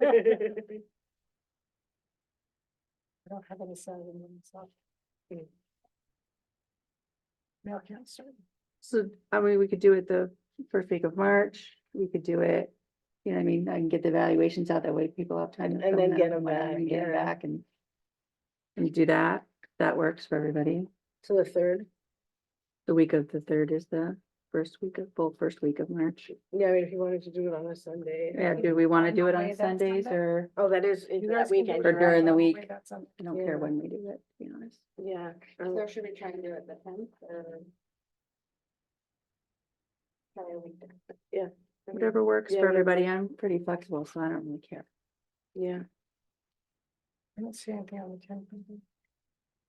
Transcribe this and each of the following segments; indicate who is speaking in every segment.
Speaker 1: I don't have any Saturday mornings off. Hmm. No, I can't start.
Speaker 2: So, I mean, we could do it the first week of March, we could do it, you know, what I mean, I can get the evaluations out, that way people have time. to
Speaker 1: And- and
Speaker 2: fill
Speaker 1: then
Speaker 2: in
Speaker 1: get 'em
Speaker 2: whatever,
Speaker 1: back,
Speaker 2: and Get them
Speaker 1: yeah.
Speaker 2: back and. And do that, that works for everybody,
Speaker 1: So the third,
Speaker 2: the week of the third is the first week of, full first week of March.
Speaker 1: yeah, I mean, if you wanted to do it on a Sunday.
Speaker 2: Yeah,
Speaker 1: um,
Speaker 2: do we wanna do it
Speaker 3: Away
Speaker 2: on
Speaker 3: that
Speaker 2: Sundays
Speaker 3: Sunday?
Speaker 2: or,
Speaker 1: Oh, that is,
Speaker 3: You
Speaker 1: into
Speaker 3: guys
Speaker 1: that
Speaker 3: can do it
Speaker 1: weekend.
Speaker 2: Or
Speaker 1: right?
Speaker 2: during the
Speaker 3: on
Speaker 2: week.
Speaker 3: way back some-
Speaker 2: I don't care
Speaker 1: Yeah.
Speaker 2: when we do it, to be honest.
Speaker 1: Yeah.
Speaker 3: So
Speaker 1: um,
Speaker 3: should we try and do it the tenth or? Probably a week.
Speaker 1: I mean,
Speaker 2: Whatever works
Speaker 1: yeah,
Speaker 2: for
Speaker 1: I mean,
Speaker 2: everybody, I'm pretty flexible, so I don't really care.
Speaker 1: Yeah,
Speaker 3: I don't see anything on the tenth.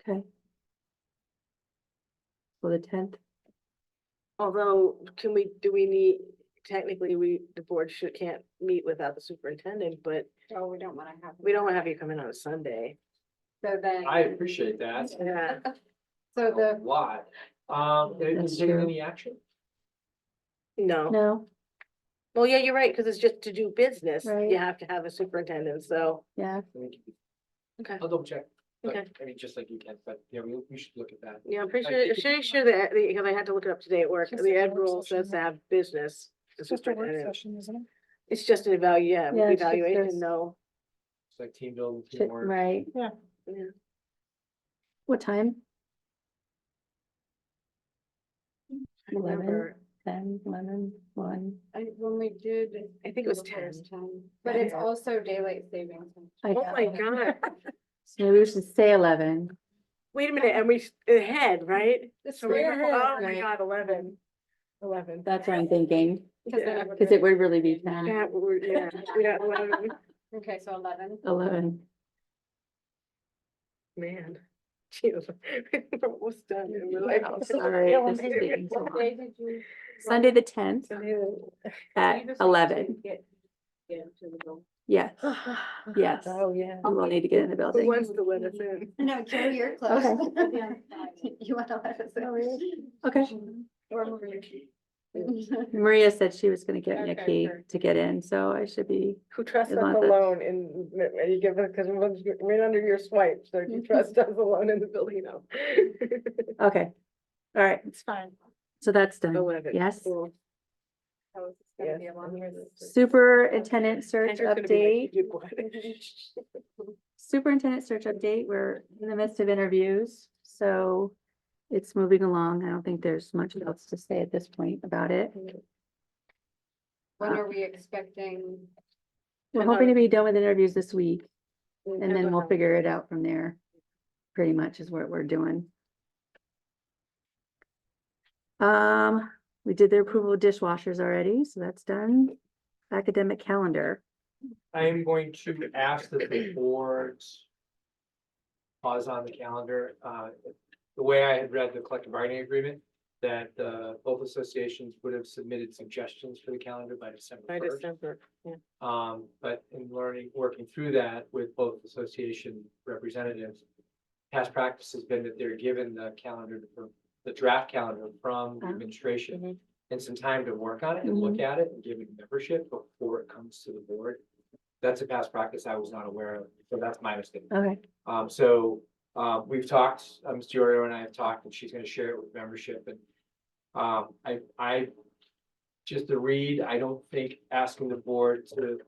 Speaker 2: Okay. So the tenth,
Speaker 1: although, can we, do we need, technically, we, the board should, can't meet without the superintendent, but
Speaker 3: Oh, we don't wanna have.
Speaker 1: we don't wanna have you come in on a Sunday.
Speaker 3: So then.
Speaker 4: I appreciate that
Speaker 1: Yeah.
Speaker 3: So
Speaker 4: a
Speaker 3: the,
Speaker 4: lot. Um, did
Speaker 2: That's
Speaker 4: you take
Speaker 2: true.
Speaker 4: any action?
Speaker 1: No,
Speaker 2: no,
Speaker 1: well, yeah, you're right, cause it's just to do business,
Speaker 2: Right.
Speaker 1: you have to have a superintendent, so.
Speaker 2: yeah,
Speaker 4: I think you-
Speaker 1: Okay.
Speaker 4: I'll double check. but,
Speaker 1: Okay.
Speaker 4: I mean, just like you can, but yeah, we, we should look at that.
Speaker 1: Yeah, I'm pretty
Speaker 4: I
Speaker 1: sure,
Speaker 4: think
Speaker 1: pretty
Speaker 4: it's-
Speaker 1: sure that, because I had to look it up today at work,
Speaker 3: Just
Speaker 1: the
Speaker 3: a
Speaker 1: ed
Speaker 3: work
Speaker 1: rule
Speaker 3: session,
Speaker 1: says to
Speaker 3: yeah.
Speaker 1: have business. the
Speaker 3: just a work
Speaker 1: superintendent.
Speaker 3: session, isn't it?
Speaker 1: It's just an evalu, yeah,
Speaker 2: Yeah, it's just this.
Speaker 1: evaluation, no.
Speaker 4: It's like team building,
Speaker 2: shit,
Speaker 4: teamwork.
Speaker 2: right,
Speaker 1: Yeah.
Speaker 2: what time?
Speaker 1: I remember,
Speaker 2: Eleven, ten, eleven, one,
Speaker 3: I, when we did.
Speaker 1: I think it was
Speaker 3: before,
Speaker 1: 10.
Speaker 3: was But it's also daylight savings. uh, time.
Speaker 2: I
Speaker 1: Oh my
Speaker 2: know,
Speaker 1: god,
Speaker 2: So maybe we should say eleven,
Speaker 1: wait a minute, and we, s- ahead, right?
Speaker 3: It's
Speaker 1: So we-
Speaker 3: weird,
Speaker 1: Oh my
Speaker 2: right.
Speaker 1: god, eleven. Eleven.
Speaker 2: that's what I'm thinking,
Speaker 3: because then
Speaker 1: Yeah.
Speaker 3: would
Speaker 2: cause
Speaker 3: be-
Speaker 2: it would really be ten,
Speaker 1: That, we're, yeah, we got eleven,
Speaker 3: Okay, so eleven.
Speaker 2: eleven.
Speaker 1: man. Jeez, we're almost done. and we're like-
Speaker 2: Wow, sorry,
Speaker 1: Yeah, we're
Speaker 2: this is
Speaker 1: maybe-
Speaker 2: taking so
Speaker 3: What
Speaker 2: long.
Speaker 3: day did you?
Speaker 2: Sunday the tenth at eleven, yes, Yes.
Speaker 1: Oh, yeah.
Speaker 2: we will need to get in the
Speaker 1: Who
Speaker 2: building,
Speaker 1: wants to let us in?
Speaker 3: No, Carrie, you're
Speaker 2: close.
Speaker 3: close.
Speaker 2: Okay.
Speaker 3: You wanna let us in?
Speaker 2: okay.
Speaker 3: Or Maria.
Speaker 2: Maria said she was gonna get me a
Speaker 3: Okay,
Speaker 2: key
Speaker 3: sure.
Speaker 2: to get in, so I should be,
Speaker 1: Who trusts
Speaker 2: Is
Speaker 1: us
Speaker 2: not that-
Speaker 1: alone and, and you give it, because we're under your swipe, so if you trust us alone in the building, no.
Speaker 2: okay, all right,
Speaker 3: It's fine.
Speaker 2: so that's done.
Speaker 1: Eleven.
Speaker 2: Yes.
Speaker 1: Cool.
Speaker 3: Oh, it's
Speaker 1: Yes.
Speaker 3: gonna be a longer-
Speaker 2: Superintendent search
Speaker 1: Andrew's gonna be
Speaker 2: update.
Speaker 1: like, "You did what?"
Speaker 2: Superintendent search update, we're in the midst of interviews, so it's moving along. I don't think there's much else to say at this point about it.
Speaker 3: When are we expecting?
Speaker 2: We're
Speaker 1: And
Speaker 2: hoping to
Speaker 1: our-
Speaker 2: be done with interviews this week and then we'll
Speaker 1: how-
Speaker 2: figure it out from there. Pretty much is what we're doing. Um, we did the approval of dishwashers already, so that's done. Academic calendar.
Speaker 4: I am going to ask that the board pause on the calendar. Uh, The way I had read the collective bargaining agreement, that uh, both associations would have submitted suggestions for the calendar by December
Speaker 1: By
Speaker 4: first.
Speaker 1: December, yeah.
Speaker 4: Um, but in learning, working through that with both association representatives. Past practice has been that they're given the calendar, from- the draft calendar from the
Speaker 2: Ah,
Speaker 1: mhm.
Speaker 4: administration. And some time to work on it and look at it and give it membership before it comes to the board. That's a past practice I was not aware of, so that's my mistake.
Speaker 2: Okay,
Speaker 4: Um, so, uh, we've talked, uh, Ms. Diorio and I have talked, and she's gonna share it with membership, and, um, I, I, just to read, I don't think asking the board to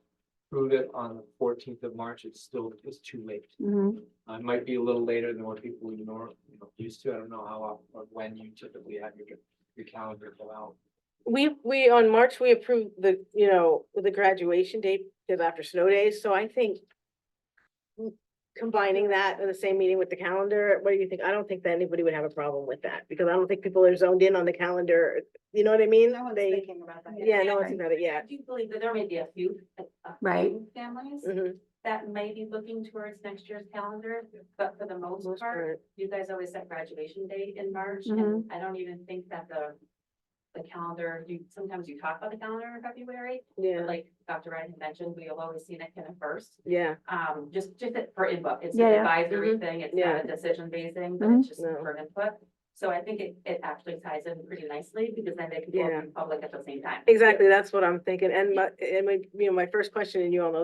Speaker 4: prove it on the fourteenth of March, it's still, it's too late.
Speaker 2: mhm.
Speaker 4: Uh, It might be a little later than what people you know, you know, used to, I don't know how, often or when you typically have your, your calendar go out.
Speaker 1: We, we, on March, we approved the, you know, the graduation date, because after snow days, so I think m- combining that in the same meeting with the calendar, what do you think? I don't think that anybody would have a problem with that, because I don't think people are zoned in on the calendar, you know what I mean?
Speaker 3: No one's
Speaker 1: They,
Speaker 3: thinking about that.
Speaker 1: yeah, no one's
Speaker 2: Right.
Speaker 1: thinking about it
Speaker 5: I
Speaker 1: yet.
Speaker 5: do believe that there may be a few, a a
Speaker 2: Right.
Speaker 5: few families
Speaker 1: Mhm,
Speaker 5: that may be looking towards next year's calendar, but for the most
Speaker 1: most
Speaker 5: part,
Speaker 1: part.
Speaker 5: you guys always set graduation date in March, and
Speaker 1: Mm-hmm.
Speaker 2: Mhm.
Speaker 5: I don't even think that the the calendar, you, sometimes you talk about the calendar in February, but
Speaker 1: Yeah,
Speaker 5: like Dr. Ryan had mentioned, we have always seen it kind of first,
Speaker 1: yeah,
Speaker 5: um, just, just it for input. It's
Speaker 2: Yeah,
Speaker 5: an
Speaker 2: yeah.
Speaker 5: advisory
Speaker 1: Mhm.
Speaker 5: thing, it's
Speaker 1: Yeah. Mm-hmm.
Speaker 5: not a decision basing, but
Speaker 2: Mhm.
Speaker 5: it's just
Speaker 1: No.
Speaker 5: for input. So I think it, it actually ties in pretty nicely, because then they can both
Speaker 1: Yeah.
Speaker 5: be public at the same time.
Speaker 1: exactly, that's what I'm thinking, and my, and my, you know, my first question, and you all know